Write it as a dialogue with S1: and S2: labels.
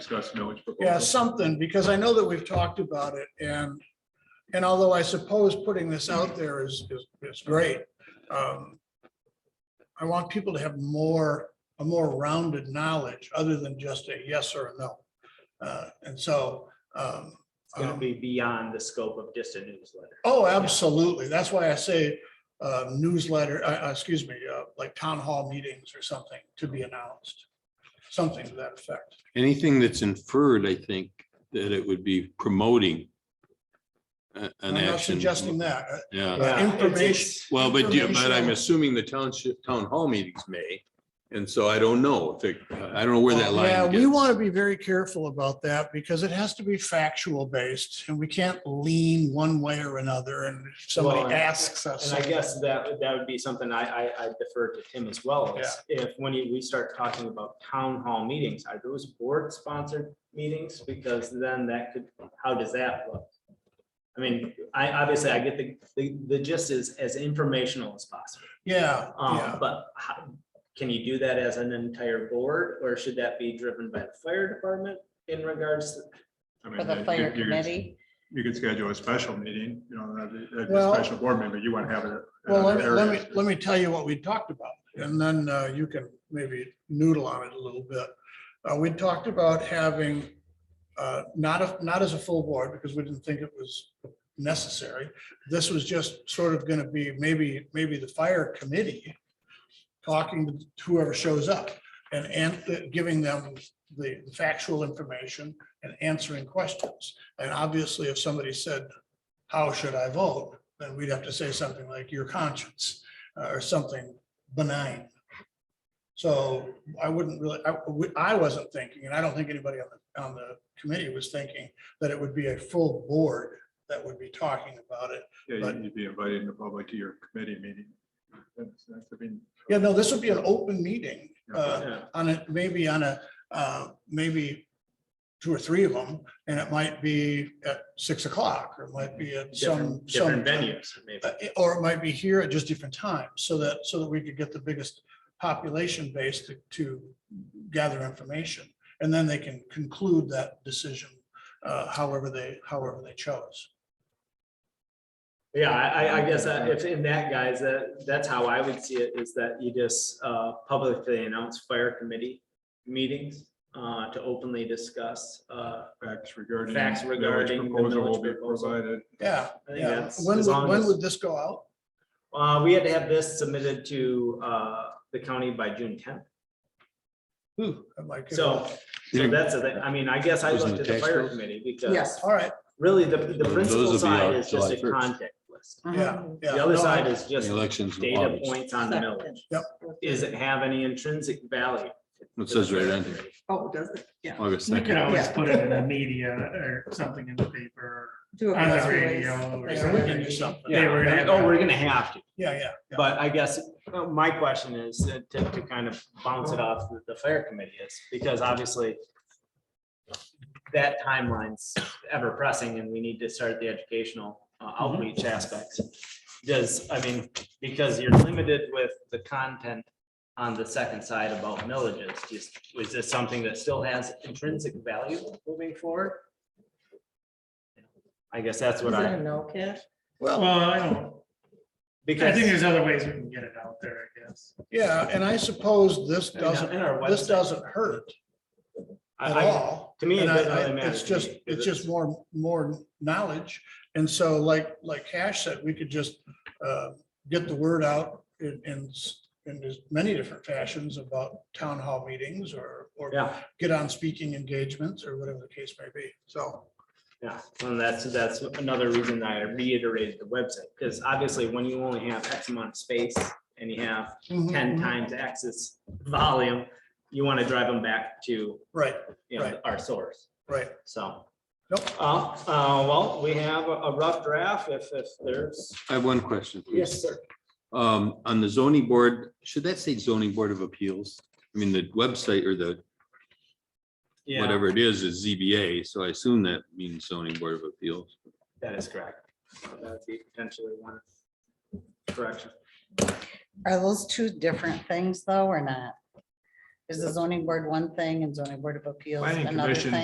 S1: discuss millage proposal.
S2: Yeah, something, because I know that we've talked about it and, and although I suppose putting this out there is, is, is great. um, I want people to have more, a more rounded knowledge other than just a yes or a no. Uh, And so. um,
S3: It's gonna be beyond the scope of just a newsletter.
S2: Oh, absolutely. That's why I say uh, newsletter, uh, uh, excuse me, uh, like town hall meetings or something to be announced. Something to that effect.
S4: anything that's inferred, I think, that it would be promoting a-
S2: I'm
S4: an
S2: not
S4: action.
S2: suggesting that. uh,
S3: Yeah,
S4: Yeah,
S3: it's-
S2: Information.
S4: well, but, yeah, but I'm
S2: Informational.
S4: assuming the township, town hall meetings may, and so I don't know if it, I don't know where that line
S2: Oh, Yeah,
S4: gets.
S2: we want to be very careful about that because it has to be factual based and we can't lean one way or another and if
S3: Well,
S2: somebody
S3: and-
S2: asks us.
S3: And I guess that, that would be something I, I, I defer to Tim as well. is If, when you- we start talking about town hall meetings, are those board sponsored meetings? Because then that could, how does that look? I mean, I, obviously, I get the, the, the gist is as informational as possible.
S2: Yeah,
S3: Um,
S2: yeah.
S3: but how, can you do that as an entire board, or should that be driven by the fire department in regards to?
S1: I mean,
S5: for the
S1: you
S5: fire
S1: could- you could-
S5: committee.
S1: You could schedule a special meeting, you know, that'd be- that'd be
S2: Well-
S1: a special board member, you want to have it. at
S2: Well, let me,
S1: other
S2: let
S1: areas.
S2: me, let me tell you what we talked about and then uh, you can maybe noodle on it a little bit. Uh, we talked about having, uh, not a, not as a full board because we didn't think it was necessary. This was just sort of going to be maybe, maybe the fire committee talking to whoever shows up and, and giving them the factual information and answering questions. And obviously, if somebody said, how should I vote? Then we'd have to say something like your conscience uh, or something benign. So I wouldn't really, I, we- I wasn't thinking, and I don't think anybody on the, on the committee was thinking that it would be a full board that would be talking about it.
S1: Yeah, you- you'd be inviting the public to your committee meeting. That's- that's- I mean,
S2: Yeah, no, this would be an open meeting. uh,
S3: Yeah.
S2: on it, maybe on a, uh, maybe two or three of them, and it might be at six o'clock, or it might be at some,
S3: Different,
S2: some.
S3: different venues, maybe.
S2: uh, Or it might be here at just different times, so that, so that we could get the biggest population base to, to gather information. And then they can conclude that decision, uh, however they, however they chose.
S3: Yeah, I, I- I guess that if in that guys, that, that's how I would see it is that you just uh, publicly announce fire committee meetings uh, to openly discuss. uh,
S1: Facts regarding.
S3: Facts
S1: the
S3: regarding the
S1: Proposal
S3: millage
S1: will be
S3: proposal.
S1: provided.
S2: Yeah,
S3: I think
S2: yeah.
S3: that's
S2: When,
S3: as
S2: would-
S3: long
S2: when
S3: as-
S2: would this go out?
S3: uh, We had to have this submitted to uh, the county by June tenth.
S2: Ooh, that might give
S3: So
S2: it-
S3: so that's, the thing. I mean, I guess I
S4: Wasn't
S3: looked at
S4: the
S3: the
S4: tax
S3: fire
S4: bill?
S3: committee
S5: Yeah.
S3: because
S2: All right,
S3: really the, the
S4: Those
S3: principal
S4: will be
S3: side
S4: out
S3: is just
S4: July
S3: a
S4: 1st.
S3: contact list.
S5: Uh-huh.
S2: yeah, yeah.
S3: The other
S2: No, I-
S3: side is just
S4: The Elections. in
S3: data
S4: August.
S3: points on the millage. Does it have any intrinsic value?
S4: It says right on here,
S5: Oh, does it? Yeah.
S4: August
S6: You could
S4: second.
S6: always
S5: Yeah.
S6: put it in the media or something in the paper,
S5: Do a
S6: or on
S5: press
S6: the
S5: release.
S6: radio or
S2: Yeah, we can do
S6: something.
S2: something.
S6: They were gonna-
S3: Oh, we're gonna have to.
S2: Yeah, yeah, yeah.
S3: But I guess uh, my question is uh, to, to kind of bounce it off the- the fair committee is, because obviously that timeline's ever pressing and we need to start the educational uh, outreach aspects. Does, I mean, because you're limited with the content on the second side about millages, just, was this something that still has intrinsic value moving forward? I guess that's
S5: Is
S3: what
S5: it a
S3: I,
S5: no, Kit?
S6: Well, I don't,
S3: because.
S6: I think there's other ways we can get it out there, I guess.
S2: Yeah, and I suppose this
S3: In our- in
S2: doesn't,
S3: our
S2: this
S3: website.
S2: doesn't hurt
S3: I-
S2: at
S3: I-
S2: all.
S3: to me, it
S2: And I-
S3: doesn't
S2: I-
S3: really matter
S2: It's
S3: to
S2: just,
S3: me, 'cause
S2: it's just
S3: it's-
S2: more, more knowledge. And so like, like Cash said, we could just uh, get the word out in, in, s- in as many different fashions about town hall meetings or, or
S3: Yeah.
S2: get on speaking engagements or whatever the case may be. So,
S3: Yeah, and that's, that's another reason that I reiterated the website, because obviously when you only have X amount of space and you have ten
S2: mhm,
S3: times access volume, you want to drive them back to,
S2: right,
S3: you know,
S2: Right.
S3: our source,
S2: right.
S3: so.
S2: Nope.
S3: Uh, uh, well, we have a- a rough draft if, if there's.
S4: I have one question. please.
S3: sir.
S4: Um, on the zoning board, should that say zoning board of appeals? I mean, the website or the,
S3: Yeah,
S4: whatever it is, is ZBA, so I assume that means zoning board of appeals.
S3: that is correct. That'd be potentially one correction.
S5: Are those two different things though, or not?
S1: Is the zoning board one thing and zoning board of appeals
S5: Planning
S1: another
S5: commission
S1: thing?